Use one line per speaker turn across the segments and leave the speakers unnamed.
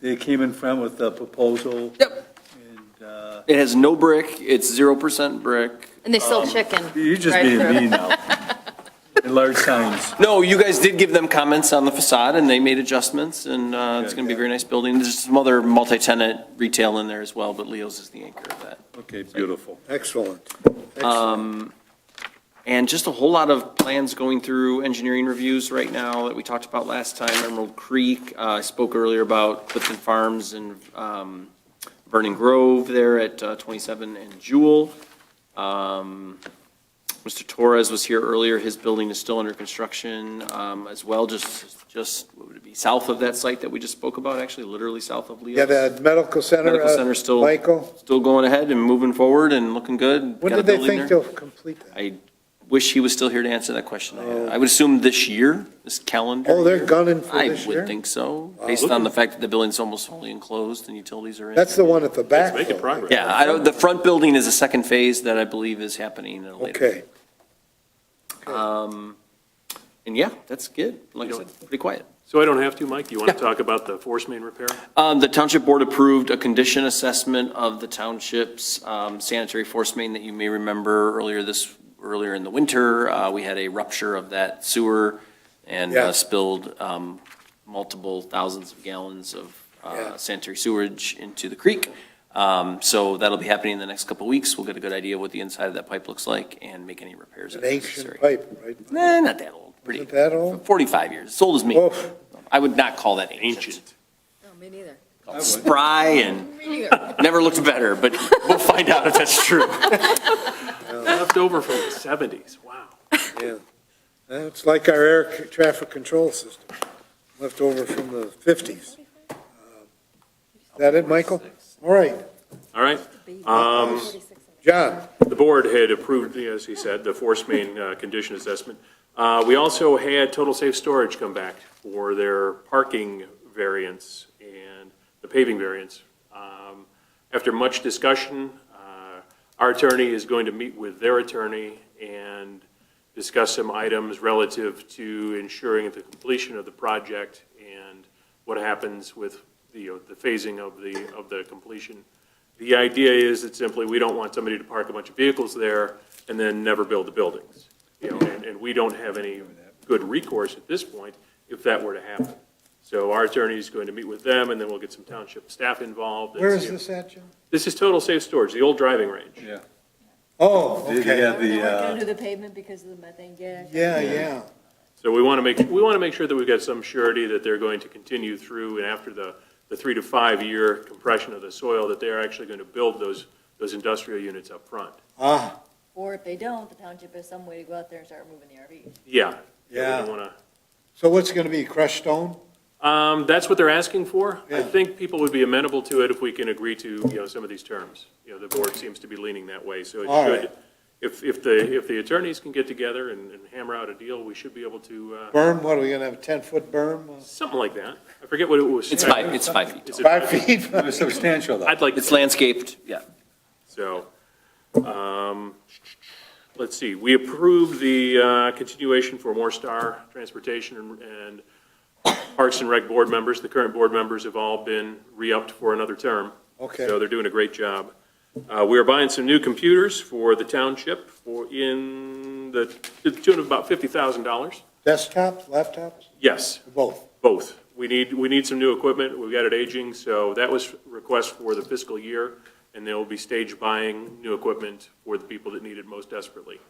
They came in front with a proposal.
Yep.
And, uh,
It has no brick, it's 0% brick.
And they sell chicken.
you're Um, just
right
being
through.
mean now. And large signs.
No, you guys did give them comments on the facade, and they made adjustments, and uh, it's
Yeah,
going to be a
yeah.
very nice building. There's some other multi-tenant retail in there as well, but Leo's is the anchor of that.
Okay, beautiful.
Excellent.
And just a whole lot of plans going through engineering reviews right now that we talked about last time, Emerald Creek. Uh, I spoke earlier about Clifton Farms and um, Vernon Grove there at uh, 27 and Jewel. Um, Mr. Torres was here earlier. His building is still under construction um, as well, just, just, what would it be, south of that site that we just spoke about, actually, literally south of Leo's.
Yeah, the medical center.
Medical
uh,
center still-
Michael,
Still going ahead and moving forward and looking good.
when
Got a
did they
building there.
think they'll complete that?
I wish he was still here to answer that question. I I would assume this year, this calendar.
Oh, they're
year.
gunning for this
I would
year? Oh,
think so, based on the fact that the building's almost wholly enclosed and utilities are in.
That's the one at the back.
making
though.
progress.
Yeah, I don't, the front building is a second phase that I believe is happening at a later.
Okay.
Um, And yeah, that's good. Like I said, pretty quiet.
So I don't have to, Mike? Do you want to talk about the force main repair?
Um, The township board approved a condition assessment of the township's um, sanitary force main that you may remember earlier this, earlier in the winter. Uh, We had a rupture of that sewer and uh,
Yeah.
spilled um, multiple thousands of gallons of uh,
Yeah.
sanitary sewage into the creek. Um, So that'll be happening in the next couple of weeks. We'll get a good idea of what the inside of that pipe looks like and make any repairs
An
that are necessary.
ancient pipe, right?
Nah, not that old. Pretty,
Isn't that old? Oh.
45 years, as old as me.
Oof.
I would not call that ancient.
Ancient.
No, Oh, me neither.
would.
Spry and
Me neither.
Never looked better, but we'll find out if that's true.
Left over from the 70s, wow.
Yeah. It's like our air c- traffic control system, left over from the 50s. Is that it, Michael? All right,
All right, Um,
John,
the board had approved, as he said, the force main uh, condition assessment. Uh, We also had Total Safe Storage come back for their parking variance and the paving variance. Um, After much discussion, uh, our attorney is going to meet with their attorney and discuss some items relative to ensuring the completion of the project and what happens with, the, you know, the phasing of the, of the completion. The idea is that simply, we don't want somebody to park a bunch of vehicles there and then never build the buildings. You know, and, and we don't have any good recourse at this point if that were to happen. So our attorney is going to meet with them, and then we'll get some township staff involved. and
where is
see-
this at, John?
This is total safe storage, the old driving range.
Yeah.
Oh,
They they
okay,
got the, uh,
Under the pavement because of the methane gas.
yeah, yeah.
So we want to make, we want to make sure that we've got some surety that they're going to continue through and after the, the three to five-year compression of the soil, that they're actually going to build those, those industrial units up front.
Ah,
Or if they don't, the township has some way to go out there and start moving the RVs.
Yeah.
Yeah.
We don't want
so what's it going to be, crushed stone?
to, um, that's what they're asking for. I
Yeah.
think people would be amenable to it if we can agree to, you know, some of these terms. You know, the board seems to be leaning that way, so
All
it
right.
should, if, if the, if the attorneys can get together and, and hammer out a deal, we should be able to, uh,
Berm, what, are we going to have a 10-foot berm? uh,
something like that. I forget what it was.
It's five, it's five feet.
Is
tall.
it-
Five feet?
it was substantial though.
I'd like.
It's landscaped, yeah.
So, um, let's see, we approved the uh, continuation for More Star Transportation and- and Parks and Rec board members. The current board members have all been re-upped for another term.
Okay.
So they're doing a great job. Uh, We are buying some new computers for the township for in the to the tune of about $50,000.
Desktops, laptops,
Yes.
both?
Both. We need, we need some new equipment. We've got it aging, so that was request for the fiscal year, and there will be stage buying new equipment for the people that need it most desperately.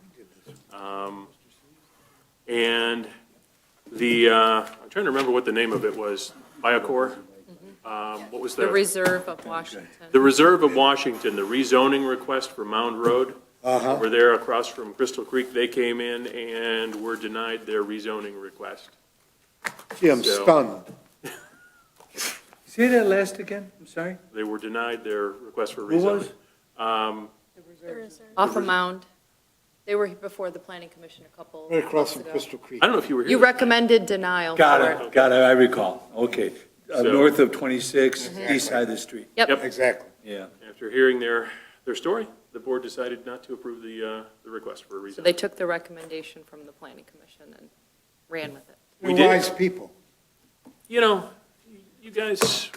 Um, And the, uh, I'm trying to remember what the name of it was, Biocore? Um, What was
The
that?
Reserve of Washington.
The Reserve of Washington, the rezoning request for Mound Road.
Uh-huh,
We're there across from Crystal Creek. They came in and were denied their rezoning request.
gee, I'm
So-
stunned.
Say that last again, I'm sorry?
They were denied their request for
Who was?
rezoning. Um,
Off a mound. They were before the planning commission a couple
Right across
months
from
ago.
Crystal Creek.
I don't know if you were here.
You recommended denial
Got
for it.
it, got it, I recall, okay. Uh,
So-
North of 26, east side of the street,
Yep.
Exactly.
yeah.
After hearing their, their story, the board decided not to approve the, uh, the request for a
So
reason.
they took the recommendation from the planning commission and ran with it.
We
We're
did.
wise people.
You know, you guys,